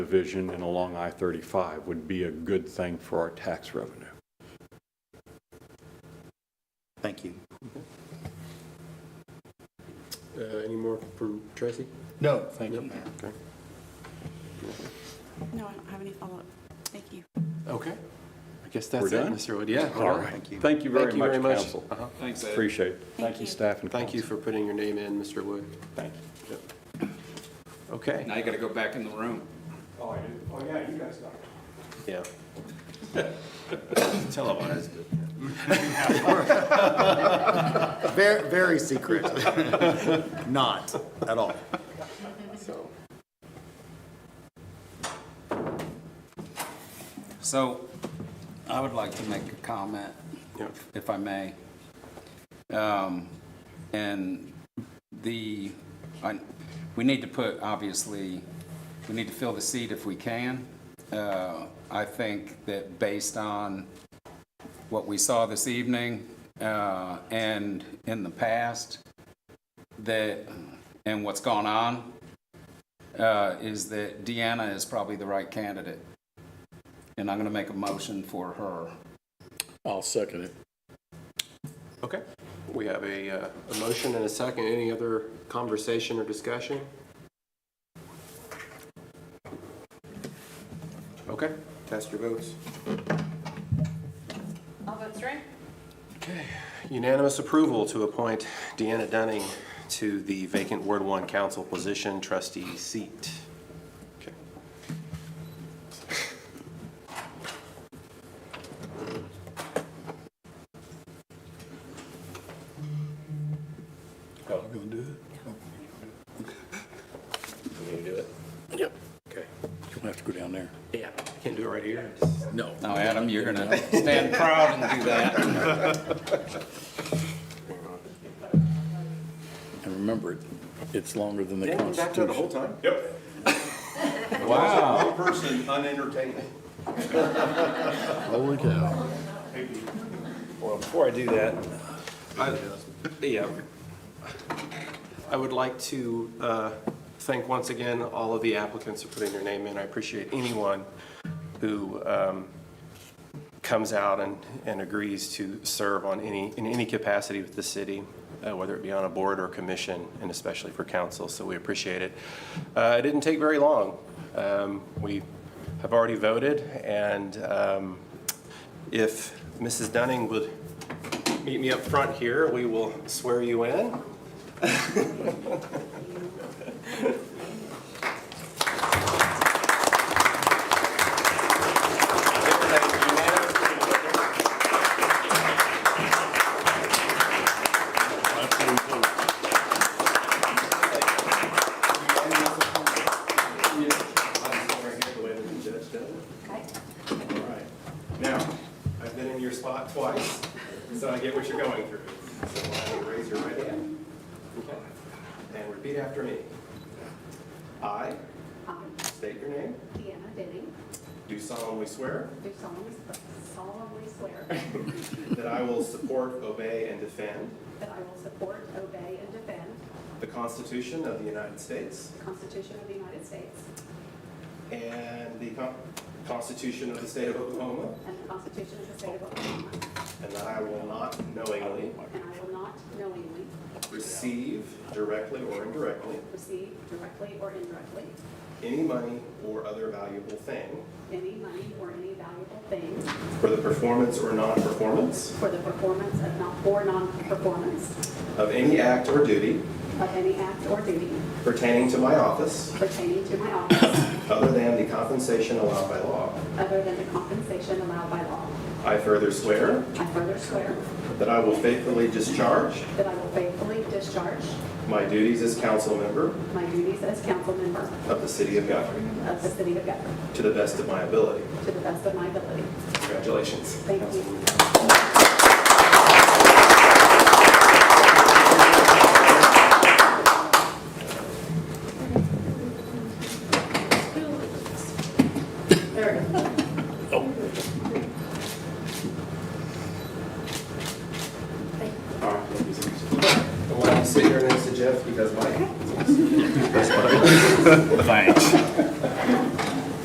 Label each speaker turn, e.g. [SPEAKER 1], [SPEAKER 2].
[SPEAKER 1] division and along I-35 would be a good thing for our tax revenue.
[SPEAKER 2] Thank you.
[SPEAKER 3] Uh, Any more from Tracy?
[SPEAKER 2] No, thank you.
[SPEAKER 4] No, I don't have any follow-up. Thank you.
[SPEAKER 3] Okay. I guess
[SPEAKER 1] We're
[SPEAKER 3] that's it,
[SPEAKER 1] done?
[SPEAKER 3] Mr. Wood. Yeah. we're
[SPEAKER 1] All
[SPEAKER 3] done.
[SPEAKER 1] right.
[SPEAKER 2] Thank you.
[SPEAKER 1] Thank you very
[SPEAKER 3] Thank you
[SPEAKER 1] much,
[SPEAKER 3] very much.
[SPEAKER 1] council.
[SPEAKER 3] Uh-huh.
[SPEAKER 1] Appreciate it.
[SPEAKER 4] Thank
[SPEAKER 1] Thank you,
[SPEAKER 4] you.
[SPEAKER 1] staff and council.
[SPEAKER 3] Thank you for putting your name in, Mr. Wood.
[SPEAKER 1] Thank you.
[SPEAKER 3] Okay.
[SPEAKER 5] Now you gotta go back in the room.
[SPEAKER 1] Oh, yeah, you guys got it.
[SPEAKER 3] Yeah.
[SPEAKER 2] Televised. Very, very secret. Not at all.
[SPEAKER 5] So I would like to make a comment, if I may. Um, And the, I- we need to put, obviously, we need to fill the seat if we can. Uh, I think that based on what we saw this evening uh, and in the past, that, and what's gone on, uh, is that Deanna is probably the right candidate. And I'm going to make a motion for her.
[SPEAKER 6] I'll second it.
[SPEAKER 3] Okay. We have a, uh, a motion and a second. Any other conversation or discussion? Okay. Cast your votes.
[SPEAKER 7] All votes right?
[SPEAKER 3] Unanimous approval to appoint Deanna Dunning to the vacant Ward One Council position trustee seat. Okay.
[SPEAKER 6] You'll have to go down there.
[SPEAKER 3] Can't do it right here.
[SPEAKER 6] No.
[SPEAKER 5] Now, Adam, you're going to stand proud and do that.
[SPEAKER 6] And remember, it- it's longer than the
[SPEAKER 3] Yeah, you backed out the
[SPEAKER 6] Constitution.
[SPEAKER 3] whole time?
[SPEAKER 5] Wow.
[SPEAKER 1] Person unentertaining.
[SPEAKER 6] Holy cow.
[SPEAKER 2] Well, before I do that,
[SPEAKER 3] I- uh, Yeah. I would like to uh, thank once again all of the applicants for putting their name in. I appreciate anyone who um, comes out and, and agrees to serve on any, in any capacity with the city, uh, whether it be on a board or commission, and especially for council, so we appreciate it. Uh, It didn't take very long. Um, We have already voted, and um, if Mrs. Dunning would meet me up front here, we will swear you in. Now, I've been in your spot twice, so I get what you're going through. So I will raise your right hand. Okay. And repeat after me. I
[SPEAKER 8] I,
[SPEAKER 3] state your name,
[SPEAKER 8] Deanna Denning,
[SPEAKER 3] do solemnly swear
[SPEAKER 8] do solemnly solemnly swear
[SPEAKER 3] that I will support, obey, and defend
[SPEAKER 8] that I will support, obey, and defend
[SPEAKER 3] the Constitution of the United States
[SPEAKER 8] the Constitution of the United States
[SPEAKER 3] and the Con- Constitution of the State of Oklahoma,
[SPEAKER 8] and the Constitution of the State of Oklahoma,
[SPEAKER 3] and that I will not knowingly
[SPEAKER 8] and I will not knowingly
[SPEAKER 3] receive directly or indirectly
[SPEAKER 8] receive directly or indirectly
[SPEAKER 3] any money or other valuable thing
[SPEAKER 8] any money or any valuable thing
[SPEAKER 3] for the performance or non-performance
[SPEAKER 8] for the performance of non- or non-performance
[SPEAKER 3] of any act or duty
[SPEAKER 8] of any act or duty
[SPEAKER 3] pertaining to my office
[SPEAKER 8] pertaining to my office
[SPEAKER 3] other than the compensation allowed by law.
[SPEAKER 8] other than the compensation allowed by law.
[SPEAKER 3] I further swear
[SPEAKER 8] I further swear
[SPEAKER 3] that I will faithfully discharge
[SPEAKER 8] that I will faithfully discharge
[SPEAKER 3] my duties as council member
[SPEAKER 8] my duties as council member
[SPEAKER 3] of the city of Guthrie
[SPEAKER 8] of the city of Guthrie
[SPEAKER 3] to the best of my ability.
[SPEAKER 8] to the best of my ability.
[SPEAKER 3] Congratulations.
[SPEAKER 8] Thank you. There we go.